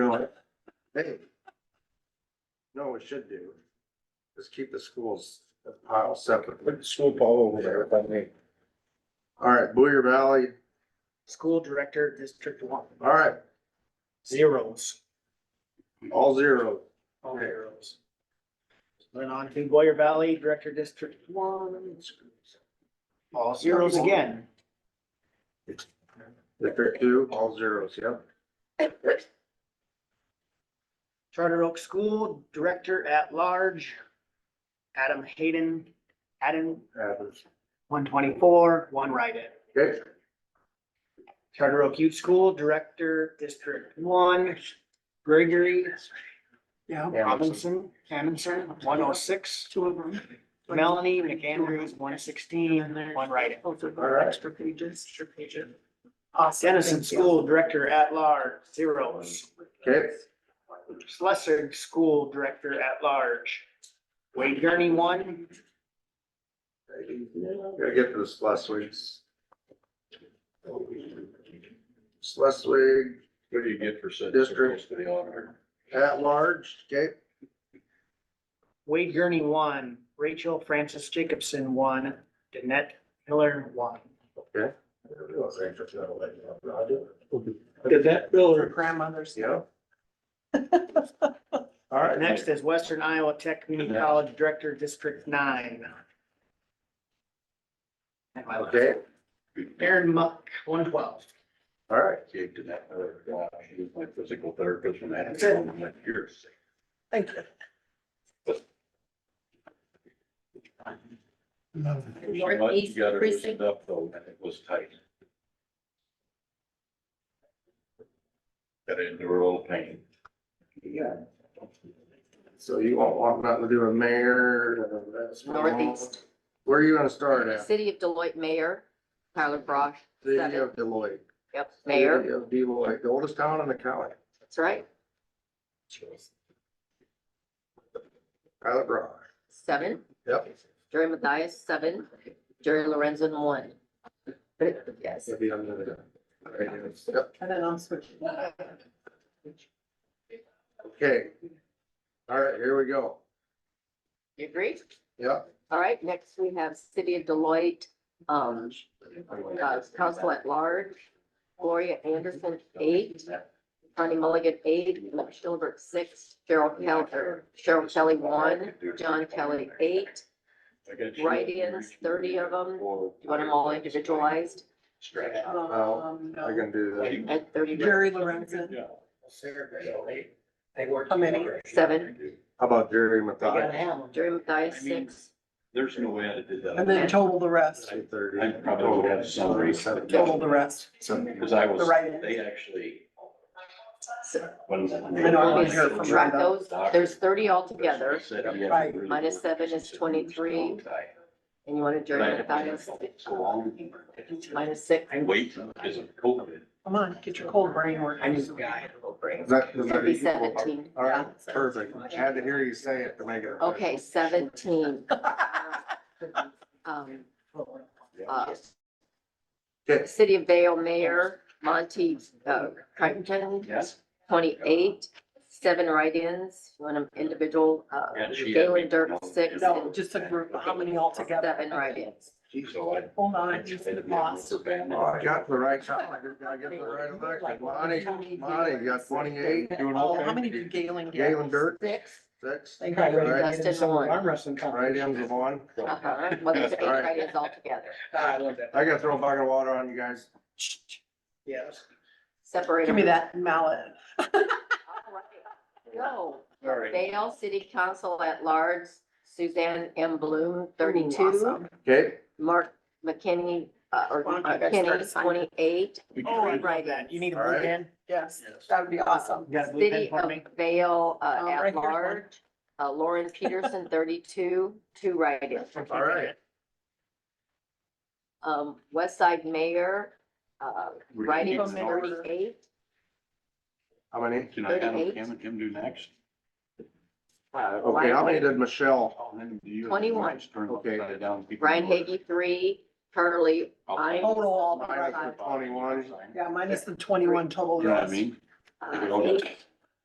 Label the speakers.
Speaker 1: what? Hey. No, we should do. Just keep the schools pile separate. Put the school ball over there if I may. All right, Booyer Valley,
Speaker 2: School Director, District One,
Speaker 1: all right,
Speaker 2: zeros,
Speaker 1: all zero.
Speaker 2: all zeros. Went on to Boyer Valley, Director, District One, all zeros again.
Speaker 1: District two, all zeros, yep.
Speaker 2: Charter Oak School Director at Large, Adam Hayden, Adam,
Speaker 1: Adams.
Speaker 2: one twenty-four, one write-in.
Speaker 1: Okay,
Speaker 2: Charter Oak Youth School Director, District One, Gregory Robinson, Amundson, one oh six.
Speaker 3: Two of them.
Speaker 2: Melanie McAndrews, one sixteen, one write-in.
Speaker 3: Both of
Speaker 1: All right.
Speaker 3: extra pages. Extra pages. Awesome.
Speaker 2: Dennison
Speaker 3: thank you.
Speaker 2: School Director at Large, zeros.
Speaker 1: okay,
Speaker 2: Schleswig School Director at Large, Wade Gurney, one.
Speaker 1: gotta get to the Schleswig's. Schleswig
Speaker 4: What do you get for sending
Speaker 1: District.
Speaker 4: circles to the auditor?
Speaker 1: at large, okay,
Speaker 2: Wade Gurney, one. Rachel Francis Jacobson, one. Danette Miller, one.
Speaker 1: Did
Speaker 2: that
Speaker 3: Her
Speaker 2: Miller.
Speaker 3: grandmother's.
Speaker 1: yeah. All right,
Speaker 2: Next is Western Iowa Tech Community College Director, District Nine. And my last.
Speaker 1: Okay,
Speaker 2: Aaron Muck, one twelve.
Speaker 1: all right,
Speaker 4: Gave to that other guy, he was my physical therapist and that.
Speaker 2: That's it.
Speaker 4: You're sick.
Speaker 3: Thank you.
Speaker 4: So much You
Speaker 5: Northeast
Speaker 4: gotta
Speaker 5: precinct.
Speaker 4: loosen up though, and it was tight. Gotta endure all pain.
Speaker 5: Uh,
Speaker 1: so you won't want nothing to do with mayor. none of that stuff.
Speaker 5: Northeast.
Speaker 1: Where are you gonna start at?
Speaker 5: City of Deloitte Mayor, Tyler Brosh,
Speaker 1: City
Speaker 5: seven.
Speaker 1: of Deloitte.
Speaker 5: yep, mayor,
Speaker 1: City of Deloitte, the oldest town in the county,
Speaker 5: that's right,
Speaker 1: Pilot Rock,
Speaker 5: seven.
Speaker 1: Yep.
Speaker 5: Jerry Matthias, seven. Jerry Lorenzen, one. Yes,
Speaker 1: it'll be under the. right here. Yep,
Speaker 3: And then I'll switch.
Speaker 1: okay. All right, here we go.
Speaker 5: you agree?
Speaker 1: Yep,
Speaker 5: All right, next we have City of Deloitte, um, uh, Council at Large, Gloria Anderson, eight. Connie Mulligan, eight, Mark Schilberg, six, Cheryl Kelly, Cheryl Kelly, one, John Kelly, eight. write-ins, 30 of them.
Speaker 4: Do
Speaker 5: Do you want them all individualized
Speaker 4: Stretch.
Speaker 3: Um,
Speaker 1: I
Speaker 3: no.
Speaker 1: can do that.
Speaker 5: at thirty?
Speaker 3: Jerry Lorenzen,
Speaker 4: Yeah.
Speaker 3: how many?
Speaker 5: Seven,
Speaker 1: How about Jerry
Speaker 2: gotta
Speaker 1: Mathias?
Speaker 2: have them.
Speaker 5: Jerry Matthias,
Speaker 4: I mean-
Speaker 5: six.
Speaker 4: There's no way I did that.
Speaker 3: And then total the rest,
Speaker 1: Two thirty.
Speaker 4: I probably have some reason.
Speaker 3: total the rest.
Speaker 4: Cause I was,
Speaker 3: The write-ins.
Speaker 4: they actually.
Speaker 5: So-
Speaker 4: when-
Speaker 3: I know, I wanna hear from
Speaker 5: Subtract
Speaker 3: Brenda.
Speaker 5: those, there's thirty altogether,
Speaker 4: Said he had
Speaker 3: Right.
Speaker 4: really
Speaker 5: Minus
Speaker 4: good
Speaker 5: seven is
Speaker 4: business.
Speaker 5: 23. and you want to
Speaker 4: But I
Speaker 5: Jerry
Speaker 4: had
Speaker 5: Matthias,
Speaker 4: been so long.
Speaker 5: minus six.
Speaker 4: Wait, is it COVID?
Speaker 3: Come on, get your cold brain working.
Speaker 2: I'm just a guy.
Speaker 1: Is that- is that
Speaker 5: It'd be
Speaker 1: equal?
Speaker 5: seventeen.
Speaker 1: All right, perfect. I had to hear you say it to make it.
Speaker 5: Okay, seventeen. Um, uh,
Speaker 1: Okay,
Speaker 5: City of Vale Mayor Monty, uh, Crichton,
Speaker 4: Yes.
Speaker 5: twenty-eight, seven write-ins, you want them individual, uh,
Speaker 4: And she had
Speaker 5: Galen
Speaker 4: me-
Speaker 5: Dirk, six,
Speaker 3: No,
Speaker 5: and
Speaker 3: just a group, how many altogether?
Speaker 5: seven write-ins.
Speaker 4: So
Speaker 5: Uh,
Speaker 4: I.
Speaker 3: Hold on,
Speaker 4: I
Speaker 3: I just lost.
Speaker 1: Oh, I got the right shot. I just gotta get the right election. Monty, Monty, you got twenty-eight. Doing
Speaker 3: Oh, how many did Galen get?
Speaker 1: Galen Dirk,
Speaker 5: Six,
Speaker 1: six.
Speaker 3: They got
Speaker 1: Right.
Speaker 3: rid
Speaker 5: Dustin, one.
Speaker 1: Right ends of one.
Speaker 5: Uh-huh, well, there's eight
Speaker 1: All right.
Speaker 5: write-ins altogether,
Speaker 2: I love that.
Speaker 1: I gotta throw a bucket of water on you guys.
Speaker 2: Yes.
Speaker 5: separate
Speaker 3: of-
Speaker 5: them.
Speaker 3: Give me that mallet.
Speaker 5: All right. No.
Speaker 4: All right.
Speaker 5: Vale City Council at Large, Suzanne M. Bloom,
Speaker 3: Ooh,
Speaker 5: thirty-two,
Speaker 3: awesome.
Speaker 1: Okay,
Speaker 5: Mark McKinney, uh, or
Speaker 3: Why don't you guys start
Speaker 5: Kenny,
Speaker 3: signing?
Speaker 5: twenty-eight,
Speaker 2: Oh, I love that. You need a
Speaker 1: All
Speaker 2: blue
Speaker 1: right.
Speaker 2: pen?
Speaker 3: Yes, that would be awesome.
Speaker 2: You got a blue pen
Speaker 5: City
Speaker 2: for
Speaker 5: of
Speaker 2: me?
Speaker 5: Vale,
Speaker 3: Um,
Speaker 5: uh,
Speaker 3: right
Speaker 5: at
Speaker 3: here's one.
Speaker 5: large, uh, Lauren Peterson, thirty-two, two write-ins.
Speaker 1: all right.
Speaker 5: Um, West Side Mayor, uh, write-ins,
Speaker 3: Mayor.
Speaker 5: forty-eight,
Speaker 1: How many?
Speaker 4: Can I have
Speaker 5: 38.
Speaker 4: him and him do next?
Speaker 5: Uh,
Speaker 1: Okay, how many did Michelle?
Speaker 4: Oh, then do you-
Speaker 5: 21.
Speaker 4: Turn
Speaker 1: Okay.
Speaker 4: upside down, people-
Speaker 5: Brian Hagey, three, Curly, I,
Speaker 3: Total all the
Speaker 1: Minus
Speaker 3: right.
Speaker 1: the twenty-one.
Speaker 3: Yeah, minus the twenty-one total.
Speaker 4: You know what I
Speaker 3: rest.
Speaker 4: mean?
Speaker 5: uh, eight,